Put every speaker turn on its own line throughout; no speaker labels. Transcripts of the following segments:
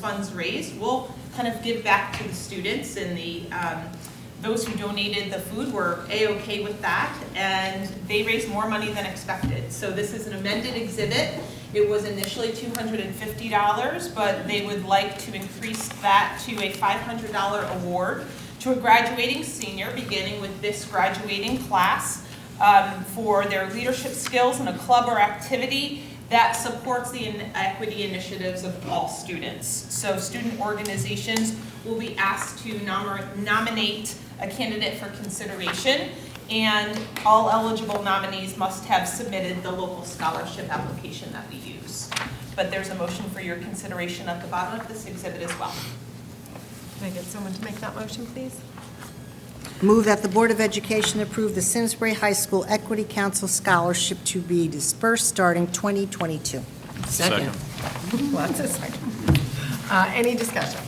funds raised, we'll kind of give back to the students and the, um, those who donated the food were A-OK with that, and they raised more money than expected. So this is an amended exhibit. It was initially two hundred and fifty dollars, but they would like to increase that to a five hundred dollar award to a graduating senior, beginning with this graduating class, um, for their leadership skills in a club or activity that supports the in- equity initiatives of all students. So student organizations will be asked to nomer- nominate a candidate for consideration, and all eligible nominees must have submitted the local scholarship application that we use. But there's a motion for your consideration at the bottom of this exhibit as well.
Can I get someone to make that motion, please?
Move that the Board of Education approve the Simsbury High School Equity Council Scholarship to be dispersed starting 2022.
Second.
Lots of second. Uh, Any discussion?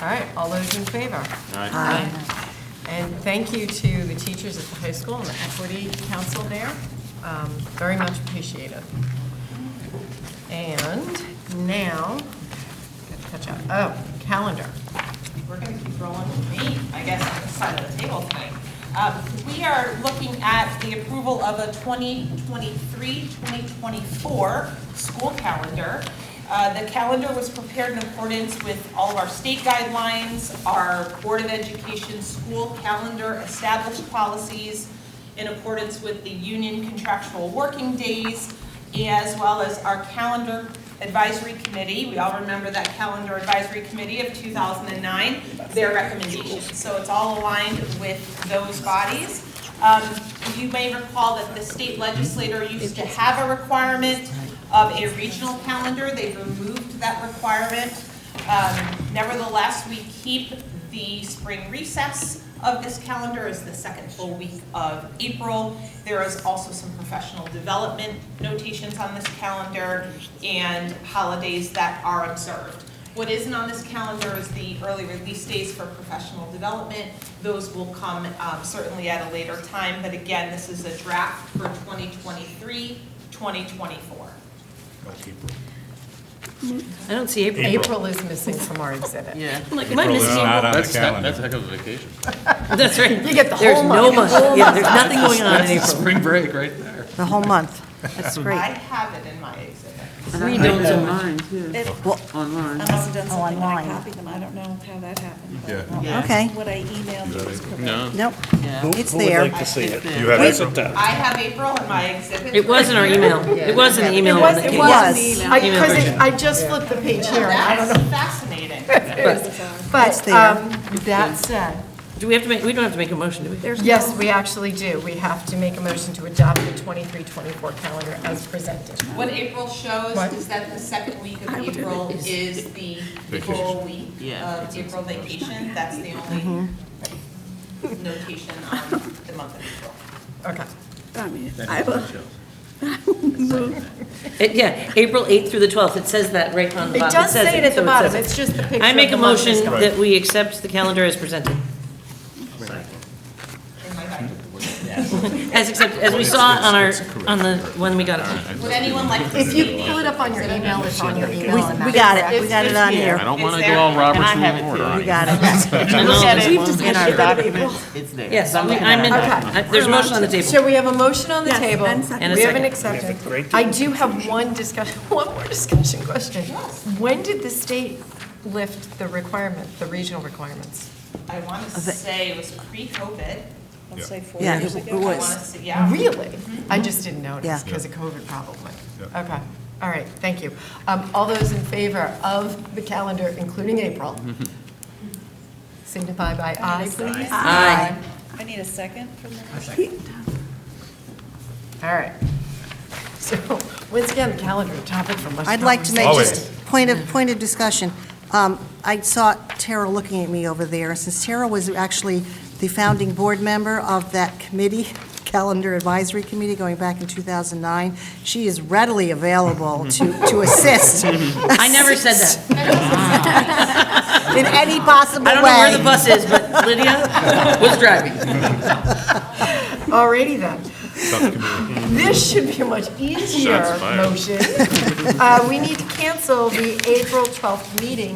All right, all those in favor? Aye. And thank you to the teachers at the high school and the equity council there. Um, Very much appreciated. And now, gotta catch up, oh, calendar.
we're gonna keep rolling with me, I guess, on the side of the table tonight. Um, we are looking at the approval of a 2023-2024 school calendar. Uh, the calendar was prepared in accordance with all of our state guidelines, our Board of Education school calendar established policies in accordance with the union contractual working days, as well as our calendar advisory committee. We all remember that calendar advisory committee of 2009, their recommendations. So it's all aligned with those bodies. Um, You may recall that the state legislator used to have a requirement of a regional calendar. They've removed that requirement. Um, Nevertheless, we keep the spring recess of this calendar is the second full week of April. There is also some professional development notations on this calendar and holidays that are observed. What isn't on this calendar is the early release days for professional development. Those will come um, certainly at a later time, but again, this is a draft for 2023, 2024.
I don't see April.
April is missing from our exhibit.
Yeah. I'm like, am I missing
not
April?
on the
That's, that-
calendar.
that's a heck of a vacation.
That's right.
You get the
There's
whole
no
month.
month. Yeah, there's nothing going on in April.
Spring break right there.
The whole month. That's
I
great.
have it in my exhibit.
Three don't do
Online, yeah,
Well,
online.
I must have done
Oh,
something, when I
online.
copied them, I don't know how that happened. but
Yeah.
Okay,
What I emailed you was correct.
No.
nope,
Yeah.
it's there.
to see it.
have it
I have April in my exhibit.
It was in our email. It was in the email.
It
when
was, it
came.
was.
Yes.
I- 'cause it- I just flipped the page here, and I don't know.
That's fascinating.
It's
But
there.
um, that said,
Do we have to make, we don't have to make a motion, do we? There's.
yes, we actually do. We have to make a motion to adopt the 23-24 calendar as presented.
What April shows
What?
is that the second week of April is the full week of April vacation. That's the only notation on the month of April.
Okay.
I mean, I will,
Yeah, April 8th through the 12th. It says that right on the
It
bottom.
does
says
say it at
so
the
says
bottom,
it.
it's just the picture.
I
of
make
the
a
month is
motion
gone.
that we accept the calendar as presented.
Am I right?
As accepted, as we saw on our, on the, when we got it.
Would anyone like to
If you
see?
pull it up on your email, it's on your email. and
We
that's
got it, we
correct.
got it on
I
here.
don't
Is
want to do
there-
all Robert's
And I have
rule of order.
We
on you.
got it.
Yes,
In our
we- I'm in, I- there's a motion on the table.
So we have a motion on the
Yes,
table.
and second.
And a
We have an
second.
acceptance. I do have one discussion, one more discussion question. When did the state lift the requirement, the regional requirements?
I want to say it was pre-COVID.
Let's say four
Yeah,
years
it
ago.
I want to
was.
say, yeah.
Really? I just didn't notice
Yeah.
because of COVID probably.
Yeah.
Okay, all right, thank you. Um, All those in favor of the calendar, including April,
Mm-hmm.
signify by aye, please.
Aye.
I need a second for the
All right. So, once again, the calendar, topic for much.
I'd like to make
conversation.
just point of, point of discussion. Um, I saw Tara looking at me over there, since Tara was actually the founding board member of that committee, Calendar Advisory Committee, going back in 2009. She is readily available to, to assist
I never said that.
in any possible way.
I don't know where the bus is, but Lydia was driving.
Alrighty then.
subcommittee.
This should be a much easier
Shots fired.
motion. Uh, We need to cancel the April 12th meeting